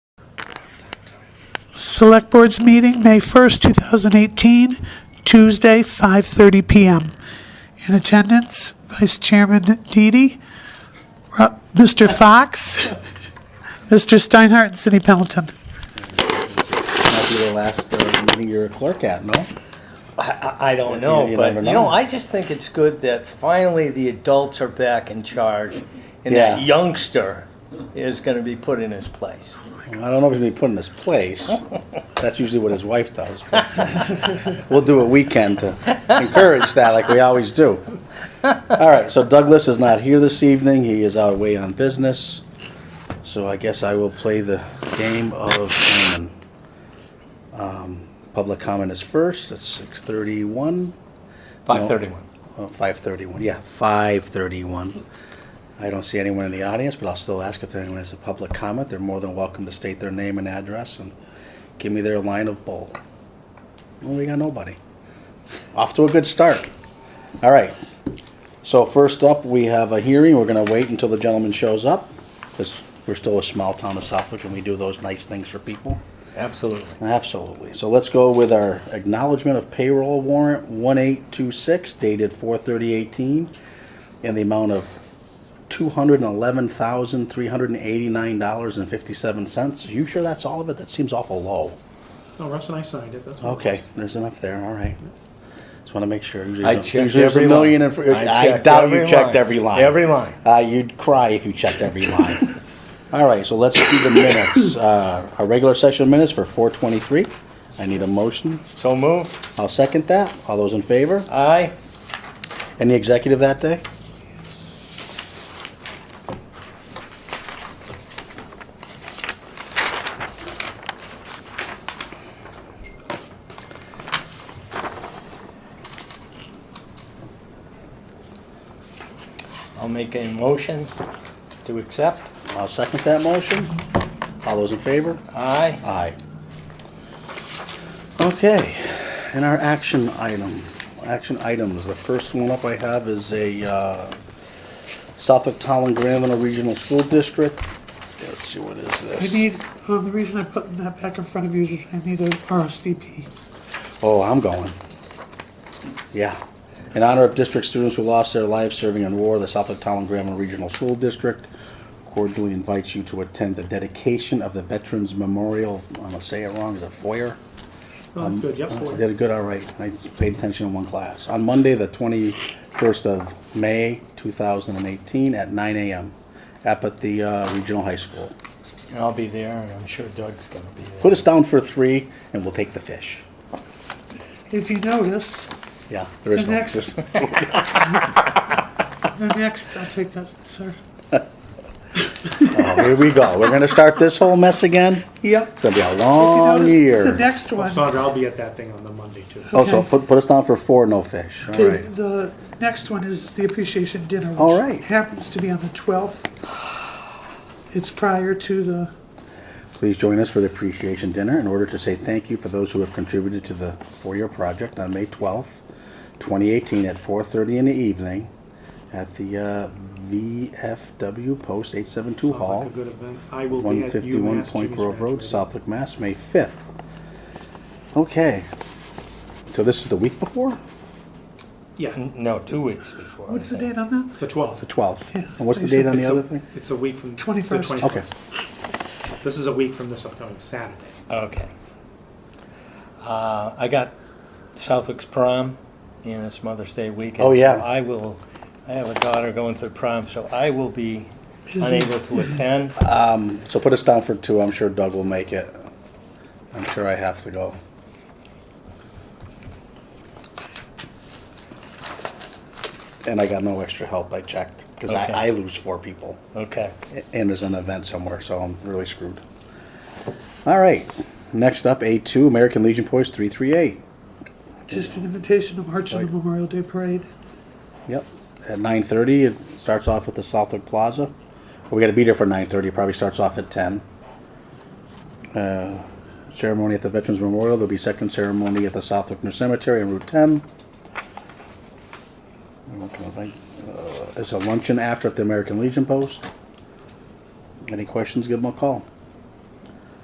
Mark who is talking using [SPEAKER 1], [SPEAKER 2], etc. [SPEAKER 1] Select Board's meeting, May 1st, 2018, Tuesday, 5:30 PM. In attendance, Vice Chairman Deedy, Ro- Mr. Fox, Mr. Steinhardt, and Cindy Pendleton.
[SPEAKER 2] Might be the last uh, meeting you're a clerk at, no?
[SPEAKER 3] I, I- I don't know,
[SPEAKER 2] You
[SPEAKER 3] but
[SPEAKER 2] never
[SPEAKER 3] you know,
[SPEAKER 2] know.
[SPEAKER 3] I just think it's good that finally the adults are back in charge, and
[SPEAKER 2] Yeah.
[SPEAKER 3] that youngster is going to be put in his place.
[SPEAKER 2] I don't know if he's gonna be put in his place. That's usually what his wife does. but, uh, We'll do what we can to encourage that like we always do. All right, so Douglas is not here this evening. He is out away on business. So I guess I will play the game of Omen. Um, Public comment is first. It's six thirty-one.
[SPEAKER 3] Five thirty-one.
[SPEAKER 2] Oh, 5:31, yeah, 5:31. I don't see anyone in the audience, but I'll still ask if anyone has a public comment. They're more than welcome to state their name and address and give me their line of bull. Well, we got nobody. Off to a good start. All right. So first up, we have a hearing. We're gonna wait until the gentleman shows up, because we're still a small town of Suffolk, and we do those nice things for people.
[SPEAKER 3] Absolutely.
[SPEAKER 2] Absolutely. So let's go with our acknowledgement of payroll warrant one eight two six dated four thirty eighteen in the amount of two hundred and eleven thousand three hundred and eighty nine dollars and fifty seven cents. You sure that's all of it? That seems awful low.
[SPEAKER 4] No, Russ and I signed it, that's all.
[SPEAKER 2] Okay, there's enough there, all right. Just wanna make sure. Usually
[SPEAKER 3] I
[SPEAKER 2] there's a-
[SPEAKER 3] checked
[SPEAKER 2] usually there's a
[SPEAKER 3] every
[SPEAKER 2] million
[SPEAKER 3] line.
[SPEAKER 2] and fr-
[SPEAKER 3] I
[SPEAKER 2] I
[SPEAKER 3] checked
[SPEAKER 2] doubt you
[SPEAKER 3] every
[SPEAKER 2] checked
[SPEAKER 3] line.
[SPEAKER 2] every line.
[SPEAKER 3] Every line.
[SPEAKER 2] Uh, you'd cry if you checked every line. All right, so let's do the minutes. Uh, our regular session minutes for four twenty-three. I need a motion.
[SPEAKER 3] So move.
[SPEAKER 2] I'll second that. All those in favor?
[SPEAKER 3] Aye.
[SPEAKER 2] Any executive that day?
[SPEAKER 3] I'll make a motion to accept.
[SPEAKER 2] I'll second that motion. All those in favor?
[SPEAKER 3] Aye.
[SPEAKER 2] Aye. Okay, and our action item, action items, the first one up I have is a uh, Suffolk Town and Granville Regional School District. Let's see, what is
[SPEAKER 1] I
[SPEAKER 2] this?
[SPEAKER 1] need, um, the reason I'm putting that back in front of you is I need a RSVP.
[SPEAKER 2] Oh, I'm going. Yeah. In honor of district students who lost their lives serving in war, the Suffolk Town and Grambling Regional School District cordially invites you to attend the dedication of the Veterans Memorial, I'm gonna say it wrong, is it foyer?
[SPEAKER 4] No, that's good, yep,
[SPEAKER 2] I
[SPEAKER 4] four.
[SPEAKER 2] did good, all right. I paid attention in one class. On Monday, the 21st of May, 2018, at 9 AM, up at the uh, Regional High School.
[SPEAKER 3] And I'll be there, and I'm sure Doug's going to be there.
[SPEAKER 2] Put us down for three, and we'll take the fish.
[SPEAKER 1] If you notice,
[SPEAKER 2] Yeah, there is
[SPEAKER 1] The
[SPEAKER 2] no...
[SPEAKER 1] next-
[SPEAKER 2] there's-
[SPEAKER 1] the next, I'll take that, sir.
[SPEAKER 2] Oh, here we go. We're gonna start this whole mess again.
[SPEAKER 1] Yep.
[SPEAKER 2] It's gonna be a
[SPEAKER 1] If you
[SPEAKER 2] long
[SPEAKER 1] notice, The
[SPEAKER 2] year.
[SPEAKER 1] next one.
[SPEAKER 4] Sandra, I'll be at that thing on the Monday too.
[SPEAKER 2] Oh, so
[SPEAKER 1] okay.
[SPEAKER 2] put, put us down for four no fish. All
[SPEAKER 1] The,
[SPEAKER 2] right.
[SPEAKER 1] the next one is the appreciation dinner, which
[SPEAKER 2] All right.
[SPEAKER 1] happens to be on the 12th. It's prior to the,
[SPEAKER 2] Please join us for the appreciation dinner in order to say thank you for those who have contributed to the four-year project on May twelfth, twenty eighteen, at four thirty in the evening at the uh, VFW Post eight seven two
[SPEAKER 4] Sounds like
[SPEAKER 2] Hall.
[SPEAKER 4] a good event. I will be
[SPEAKER 2] One
[SPEAKER 4] at UMass
[SPEAKER 2] fifty-one Point
[SPEAKER 4] Junior's
[SPEAKER 2] Grove Road,
[SPEAKER 4] graduating.
[SPEAKER 2] Southwick, Mass, May fifth. Okay. So this is the week before?
[SPEAKER 4] Yeah,
[SPEAKER 3] No, two weeks before. I
[SPEAKER 1] what's the
[SPEAKER 3] think.
[SPEAKER 1] date on that?
[SPEAKER 4] the twelfth.
[SPEAKER 2] The twelfth.
[SPEAKER 1] Yeah.
[SPEAKER 2] And what's the date on the
[SPEAKER 4] It's a-
[SPEAKER 2] other thing?
[SPEAKER 4] It's a week from. the
[SPEAKER 1] 21st.
[SPEAKER 4] 21st.
[SPEAKER 2] Okay.
[SPEAKER 4] This is a week from this upcoming Saturday.
[SPEAKER 3] Okay. Uh, I got Southwick's prom, and it's Mother's Day weekend.
[SPEAKER 2] Oh, yeah.
[SPEAKER 3] So I will, I have a daughter going to the prom, so I will be
[SPEAKER 1] Is it-
[SPEAKER 3] unable to attend.
[SPEAKER 2] So put us down for two. I'm sure Doug will make it. I'm sure I have to go. And I got no extra help, I checked, because
[SPEAKER 3] Okay.
[SPEAKER 2] I, I lose four people,
[SPEAKER 3] Okay.
[SPEAKER 2] a- and there's an event somewhere, so I'm really screwed. All right, next up, A2, American Legion Post 338.
[SPEAKER 1] Just an invitation to march in the Memorial Day Parade.
[SPEAKER 2] Yep, at 9:30, it starts off at the Southwick Plaza. We gotta be there for 9:30, It probably starts off at 10. Uh, Ceremony at the Veterans Memorial, there'll be second ceremony at the Southwick New Cemetery on Route 10. I'm not gonna think, uh, There's a luncheon after at the American Legion Post. Any questions, give them a call.